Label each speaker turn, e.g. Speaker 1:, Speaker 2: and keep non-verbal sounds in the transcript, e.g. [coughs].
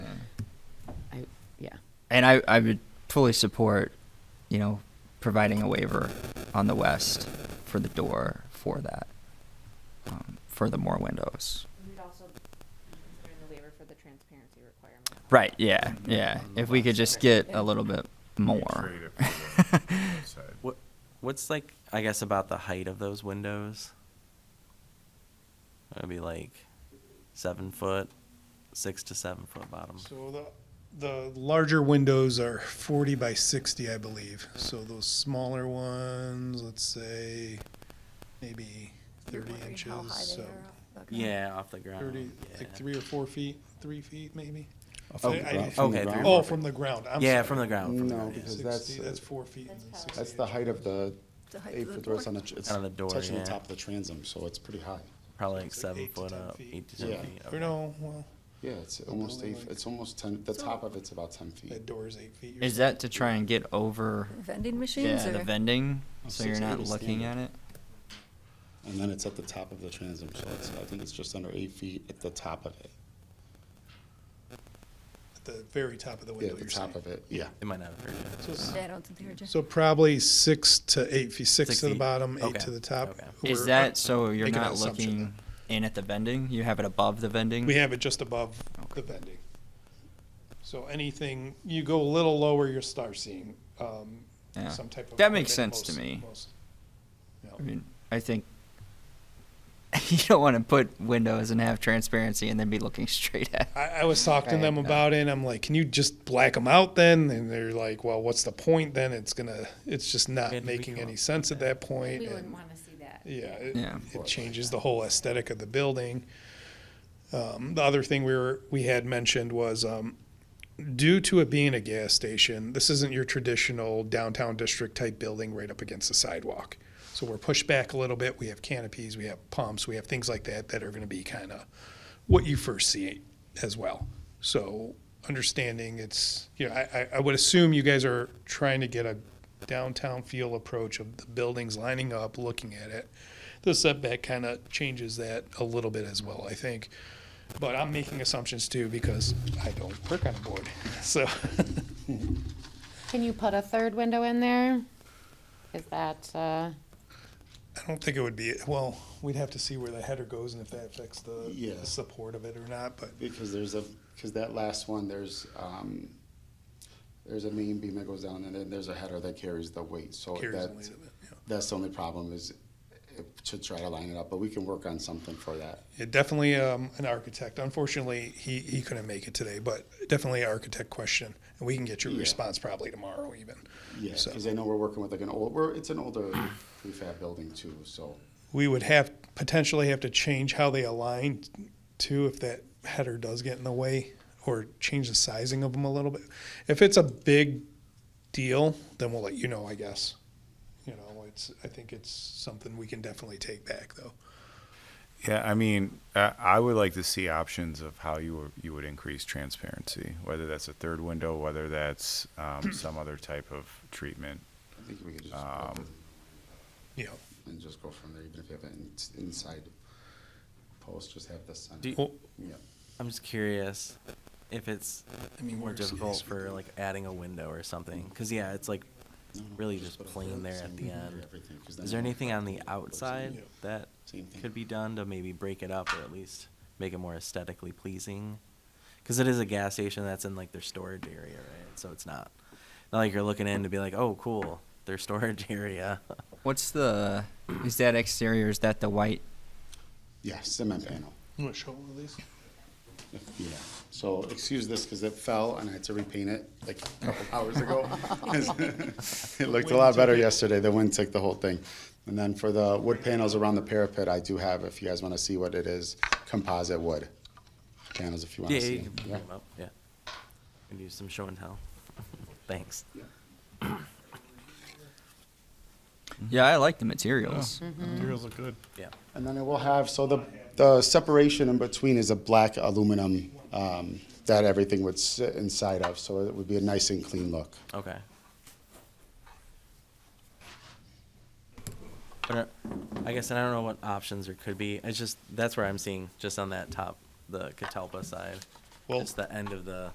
Speaker 1: and I, I would fully support, you know, providing a waiver on the west for the door for that, um, for the more windows.
Speaker 2: We'd also be considering the waiver for the transparency requirement.
Speaker 1: Right. Yeah. Yeah. If we could just get a little bit more.
Speaker 3: Trade it for the outside.
Speaker 4: What, what's like, I guess, about the height of those windows? It'd be like seven foot, six to seven foot bottoms.
Speaker 5: So the, the larger windows are forty by sixty, I believe. So those smaller ones, let's say, maybe thirty inches, so
Speaker 4: Yeah, off the ground.
Speaker 5: thirty, like
Speaker 4: Oh, yeah.
Speaker 5: three or four feet, three feet maybe?
Speaker 6: Oh, From
Speaker 5: I-
Speaker 6: the
Speaker 5: I-
Speaker 6: ground- from the
Speaker 4: okay,
Speaker 6: ground.
Speaker 4: three-
Speaker 5: Oh, from the ground, I'm sorry.
Speaker 4: Yeah, from the ground. From the
Speaker 6: No,
Speaker 4: ground, yeah.
Speaker 6: because that's- uh,
Speaker 5: Sixty, that's four feet and
Speaker 2: That's
Speaker 5: sixty.
Speaker 6: That's the height of the eight-foot door, it's on the, tr- it's
Speaker 4: Out of the door,
Speaker 6: touching the
Speaker 4: yeah.
Speaker 6: top of the transom, so Oh, it's pretty high.
Speaker 4: probably like
Speaker 5: It's like
Speaker 4: seven
Speaker 5: eight to
Speaker 4: foot
Speaker 5: 10
Speaker 4: up,
Speaker 5: feet.
Speaker 4: eight to ten
Speaker 6: Yeah.
Speaker 4: feet.
Speaker 5: Or no, well,
Speaker 6: Yeah, it's almost
Speaker 5: building
Speaker 6: eight,
Speaker 5: like-
Speaker 6: it's almost ten, the top of it's about ten
Speaker 5: that
Speaker 6: feet.
Speaker 5: door is eight feet.
Speaker 1: Is that to try and get over
Speaker 7: Vending machines
Speaker 1: yeah,
Speaker 7: or?
Speaker 1: the vending
Speaker 6: Oh,
Speaker 1: so you're
Speaker 6: six
Speaker 1: not
Speaker 6: feet is
Speaker 1: looking at
Speaker 6: standard.
Speaker 1: it?
Speaker 6: And then it's at the top of the transom, so it's, I think it's just under eight feet at the top of it.
Speaker 5: At the very top of the
Speaker 6: Yeah,
Speaker 5: window,
Speaker 6: at the
Speaker 5: you're
Speaker 6: top
Speaker 5: saying.
Speaker 6: of it, yeah.
Speaker 4: It might not have hurt you.
Speaker 5: So s-
Speaker 7: Yeah, I don't think they were just.
Speaker 5: So probably six to eight feet, six
Speaker 4: Six
Speaker 5: to the
Speaker 4: feet.
Speaker 5: bottom,
Speaker 4: Okay.
Speaker 5: eight to the top.
Speaker 4: Okay.
Speaker 1: Is
Speaker 5: We're-
Speaker 1: that so you're
Speaker 5: making an
Speaker 1: not
Speaker 5: assumption
Speaker 1: looking in at the vending? You have it above the vending?
Speaker 5: We have it just above the vending. So anything, you go a little lower, you'll start seeing um,
Speaker 1: Yeah.
Speaker 5: some type of.
Speaker 1: That makes
Speaker 5: equipment
Speaker 1: sense to
Speaker 5: most-
Speaker 1: me.
Speaker 5: most- yeah.
Speaker 1: I mean, I think [laughs] you don't want to put windows and have transparency and then be looking [laughs] straight at.
Speaker 5: I, I was talking to
Speaker 1: Right,
Speaker 5: them
Speaker 1: no.
Speaker 5: about it, and I'm like, can you just black them out then? And they're like, well, what's the point then? It's gonna, it's just
Speaker 4: Yeah,
Speaker 5: not
Speaker 4: did we
Speaker 5: making
Speaker 4: come
Speaker 5: any
Speaker 4: up
Speaker 5: sense at that
Speaker 2: We
Speaker 5: point. and-
Speaker 2: wouldn't want to see that.
Speaker 5: Yeah, it,
Speaker 1: Yeah.
Speaker 5: it changes the whole aesthetic of the building. Um, the other thing we were we had mentioned was um, due to it being a gas station, this isn't your traditional downtown district type building right up against the sidewalk. So we're pushed back a little bit. We have canopies, we have pumps, we have things like that that are going to be kind of what you first see as well. So understanding it's you know I, I- I would assume you guys are trying to get a downtown feel approach of the buildings lining up, looking at it the setback kind of changes that a little bit as well, I think. But I'm making assumptions too because I don't work on a board. [laughs] So
Speaker 8: Can you put a third window in there? Is that, uh,
Speaker 5: I don't think it would be, well, we'd have to see where the header goes and if that affects the the
Speaker 6: Yeah.
Speaker 5: support of it or not, but
Speaker 6: Because there's a, because that last one, there's, um, there's a main beam that goes down and then there's a header that carries the weight, so
Speaker 5: carries the weight
Speaker 6: Oh, that's,
Speaker 5: of it. yeah.
Speaker 6: that's the only problem is uh, to try to line it up, but we can work on something for that.
Speaker 5: Yeah, definitely um, an architect. Unfortunately, he, he couldn't make it today, but definitely an architect question. And we can get your
Speaker 6: Yeah.
Speaker 5: response probably tomorrow even.
Speaker 6: Yeah,
Speaker 5: So-
Speaker 6: because I know we're working with like an old, we're, it's an [coughs] older prefab building too, so.
Speaker 5: we would have potentially have to change how they align too if that header does get in the way or change the sizing of them a little bit. If it's a big deal, then we'll let you know, I guess. You know, it's I think it's something we can definitely take back though.
Speaker 3: [laughs] Yeah, I mean, I, I would like to see options of how you would- you would increase transparency, whether that's a third window, whether that's [clears throat] um, some other type of treatment.
Speaker 6: I think we could just
Speaker 3: Um,
Speaker 6: open
Speaker 5: You know.
Speaker 6: and just go from there, even if you have an ins- inside post, just have the center.
Speaker 4: Do-
Speaker 5: Well,
Speaker 6: Yeah.
Speaker 4: I'm just curious if it's
Speaker 5: I mean
Speaker 4: more
Speaker 5: worst case
Speaker 4: difficult
Speaker 5: would
Speaker 4: for
Speaker 5: be-
Speaker 4: like adding a window or something. Because yeah, it's like really just
Speaker 6: put a
Speaker 4: plain
Speaker 6: hood,
Speaker 4: there
Speaker 6: same
Speaker 4: at the
Speaker 6: thing for
Speaker 4: end.
Speaker 6: everything, 'cause then
Speaker 4: Is there
Speaker 6: you don't
Speaker 4: anything
Speaker 6: have
Speaker 4: on
Speaker 6: to
Speaker 4: the
Speaker 6: go to
Speaker 4: outside that
Speaker 6: Same thing.
Speaker 4: could be done to maybe break it up or at least make it more aesthetically pleasing? Because it is a gas station that's in like their storage area, right? So it's not not like you're looking in to be like, oh, cool, their [laughs] storage area.
Speaker 6: Oh,
Speaker 1: What's the? Is that exterior? Is that the white?
Speaker 6: Yeah, cement panel.
Speaker 5: You wanna show one of these?
Speaker 6: Yeah. So excuse this because it fell and I had to repaint it like a couple [laughs] hours ago. 'Cause It looked a lot better yesterday. The wind took the whole thing. And then for the wood panels around the parapet, I do have, if you guys want to see what it is, composite wood panels if you want
Speaker 4: yeah,
Speaker 6: to see.
Speaker 4: [laughs] you can
Speaker 6: them.
Speaker 4: bring
Speaker 6: Yeah.
Speaker 4: 'em up. Yeah. And do some show and tell. [laughs] Thanks.
Speaker 1: Yeah, I like the materials.
Speaker 9: Materials look good.
Speaker 4: Yeah.
Speaker 6: And then it will have, so the, the separation in between is a black aluminum um, that everything would sit inside of, so it would be a nice and clean look.
Speaker 4: Okay. But uh, I guess and I don't know what options there could be. It's just that's where I'm seeing just on that top, the Catalpa side.
Speaker 5: Well-
Speaker 4: just the end of the